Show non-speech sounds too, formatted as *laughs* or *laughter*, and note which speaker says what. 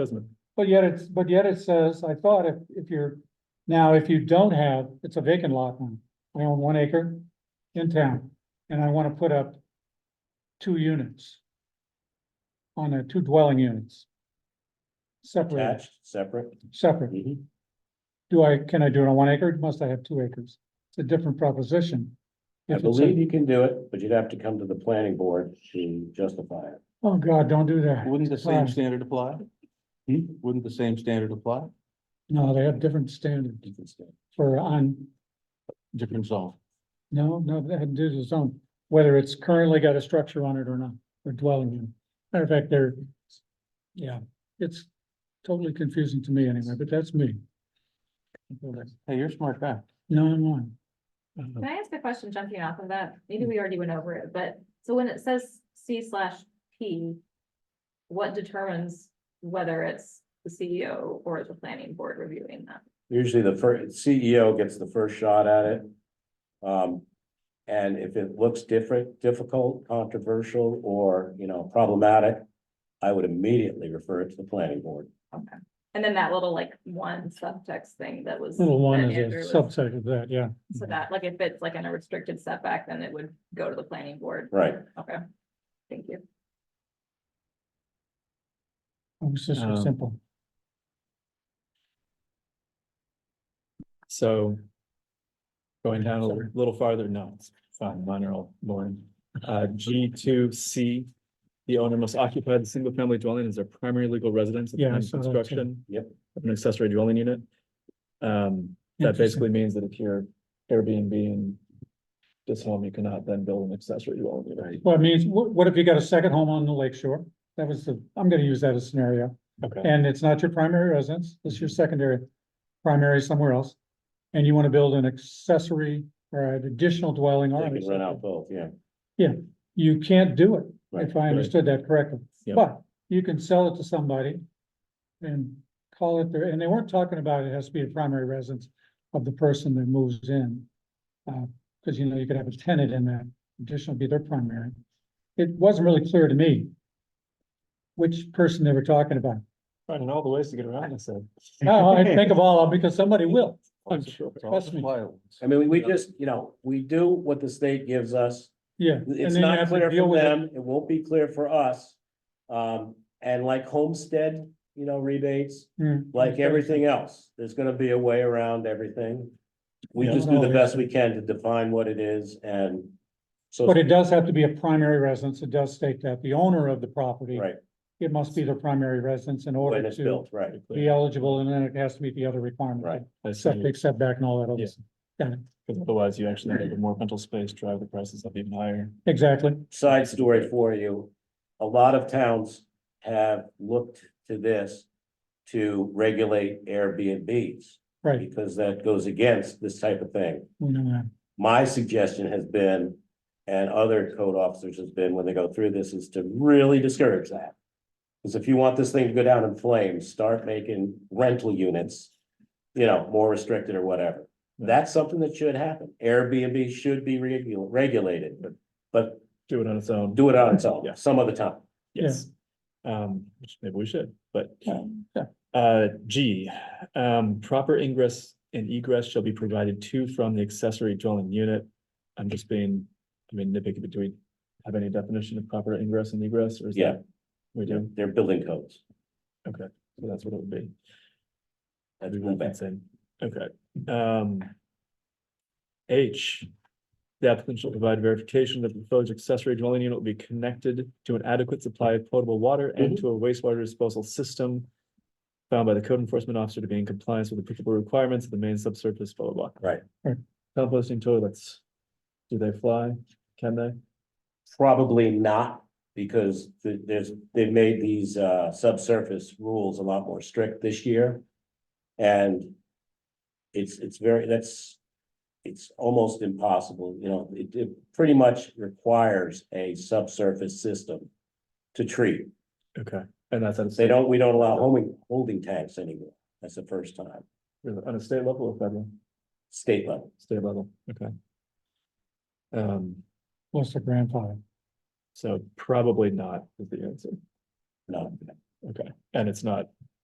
Speaker 1: doesn't it?
Speaker 2: But yet it's, but yet it says, I thought if, if you're, now if you don't have, it's a vacant lot now. I own one acre in town and I want to put up two units. On a, two dwelling units. Separate,
Speaker 1: Attached, separate.
Speaker 2: separate.
Speaker 1: Mhm.
Speaker 2: Do I, can I do it on one acre? Must I have two acres? It's a different proposition.
Speaker 1: I
Speaker 2: If it's a-
Speaker 1: believe you can do it, but you'd have to come to the planning board to justify it.
Speaker 2: Oh, God, don't do that.
Speaker 3: Wouldn't the
Speaker 2: Right. Hmm?
Speaker 3: same standard apply? Wouldn't the same standard apply?
Speaker 2: No, they have different standards
Speaker 1: You can still-
Speaker 2: for on,
Speaker 3: Different zone.
Speaker 2: No, no, that had to do with zone, whether it's currently got a structure on it or not, or dwelling in. Matter of fact, they're, yeah, it's totally confusing to me anyway, but that's me.
Speaker 3: Hey, you're a smart guy.
Speaker 2: No, I'm not. Uh,
Speaker 4: Can I ask a question jumping off of that?
Speaker 2: Mm.
Speaker 4: Maybe we already went over it, but so when it says C slash P. What determines whether it's the CEO or the planning board reviewing that?
Speaker 1: Usually the first CEO gets the first shot at it. Um, and if it looks different, difficult, controversial, or, you know, problematic, I would immediately refer it to the planning board.
Speaker 4: And then that little like one subtext thing that was.
Speaker 2: Little one
Speaker 4: that
Speaker 2: is a
Speaker 4: Andrew was-
Speaker 2: subset of that, yeah.
Speaker 4: So that, like, if it's like in a restricted setback, then it would go to the planning board.
Speaker 1: Right.
Speaker 4: Okay. Thank you.
Speaker 2: It was just so
Speaker 5: Um,
Speaker 2: simple.
Speaker 5: So going down a
Speaker 2: Sorry.
Speaker 5: little farther, no, it's fine, mine are all boring. Uh, G two C, the owner must occupy the single family dwelling as their primary legal residence. at the
Speaker 2: Yeah, I
Speaker 5: time of
Speaker 2: saw that too.
Speaker 5: Construction.
Speaker 1: Yep.
Speaker 5: Of an accessory dwelling unit. Um, that
Speaker 2: Interesting.
Speaker 5: basically means that if you're Airbnb in this home, you cannot then build an accessory dwelling unit. Right.
Speaker 2: Well, I mean, what, what if you got a second home on the lake shore? That was the, I'm gonna use that as a scenario.
Speaker 5: Okay,
Speaker 2: And it's not your primary residence, it's your secondary, primary somewhere else. And you wanna build an accessory or an additional dwelling or.
Speaker 1: They
Speaker 2: an
Speaker 1: can
Speaker 2: accessory.
Speaker 1: run out both, yeah.
Speaker 2: You can't do it,
Speaker 1: Right,
Speaker 2: if I understood that correctly.
Speaker 5: Yep.
Speaker 2: But you can sell it to somebody and call it their, and they weren't talking about it has to be a primary residence of the person that moves in. Uh, cause you know, you could have a tenant in that, additional be their primary. It wasn't really clear to me which person they were talking about.
Speaker 5: finding all the ways to get around this. uh,
Speaker 2: Now,
Speaker 1: *laughs*
Speaker 2: I think of all, of them because somebody will. I'm
Speaker 5: sure.
Speaker 3: It's all
Speaker 2: Trust me.
Speaker 3: violence.
Speaker 1: I mean, we- we just, you know, we do what the state gives us.
Speaker 2: Yeah. and
Speaker 1: It's
Speaker 2: then you
Speaker 1: not
Speaker 2: have to
Speaker 1: clear
Speaker 2: deal
Speaker 1: for
Speaker 2: with it.
Speaker 1: them, it won't be clear for us. Um, and like homestead, you know, rebates,
Speaker 2: Hmm.
Speaker 1: like everything else, there's gonna be a way around everything. We
Speaker 2: Yeah.
Speaker 1: just do the best we can to define what it is and so,
Speaker 2: But it does have to be a primary residence. It does state that the owner of the property.
Speaker 1: right,
Speaker 2: It must be their primary residence in
Speaker 1: when
Speaker 2: order
Speaker 1: it's
Speaker 2: to
Speaker 1: built, right.
Speaker 2: be eligible and then it has to meet the other requirements.
Speaker 1: Right.
Speaker 2: Septic, setback and all that other.
Speaker 5: Yeah.
Speaker 2: stuff. Got it.
Speaker 5: Because otherwise you actually need more rental space, drive the prices up even higher.
Speaker 2: Exactly.
Speaker 1: Side story for you, a lot of towns have looked to this to regulate Airbnbs
Speaker 2: Right.
Speaker 1: because that goes against this type of thing.
Speaker 2: We know that.
Speaker 1: my suggestion has been, and other code officers has been, when they go through this, is to really discourage that. Because if you want this thing to go down in flames, start making rental units, you know, more restricted or whatever. That's something that should happen. Airbnb should be regul- regulated, but, but
Speaker 5: Do it on its own.
Speaker 1: do it on its own,
Speaker 5: Yeah.
Speaker 1: some other time.
Speaker 2: Yeah.
Speaker 5: Yes. Um, which maybe we should, but.
Speaker 2: yeah.
Speaker 5: Uh, G, um, proper ingress and egress shall be provided to from the accessory dwelling unit. I'm just being, I mean, nitpicky, but do we have any definition of proper ingress and egress or is
Speaker 1: Yeah.
Speaker 5: that? We do,
Speaker 1: They're building codes.
Speaker 5: so that's what it would be.
Speaker 1: That's
Speaker 5: We
Speaker 1: cool.
Speaker 5: want that same. Okay, um. H, the applicant shall provide verification that the proposed accessory dwelling unit will be connected to an adequate supply of potable water and
Speaker 1: Mm-hmm.
Speaker 5: to a wastewater disposal system. Found by the code enforcement officer to be in compliance with applicable requirements of the main subsurface, blah, blah, blah.
Speaker 1: Right.
Speaker 2: Right.
Speaker 5: Composting toilets. Do they fly? Can they?
Speaker 1: Probably not, because th- there's, they made these uh subsurface rules a lot more strict this year. And it's, it's very, that's, it's almost impossible, you know, it, it pretty much requires a subsurface system to treat.
Speaker 5: Okay, and that's on a
Speaker 1: They
Speaker 5: state,
Speaker 1: don't, we don't allow homing, holding tanks anymore. That's the first time,
Speaker 5: on a state level or federal?
Speaker 1: state level.
Speaker 5: State level, okay. Um.
Speaker 2: Plus the grandfather.
Speaker 5: So probably not is the answer.
Speaker 1: No,
Speaker 5: Okay, and it's not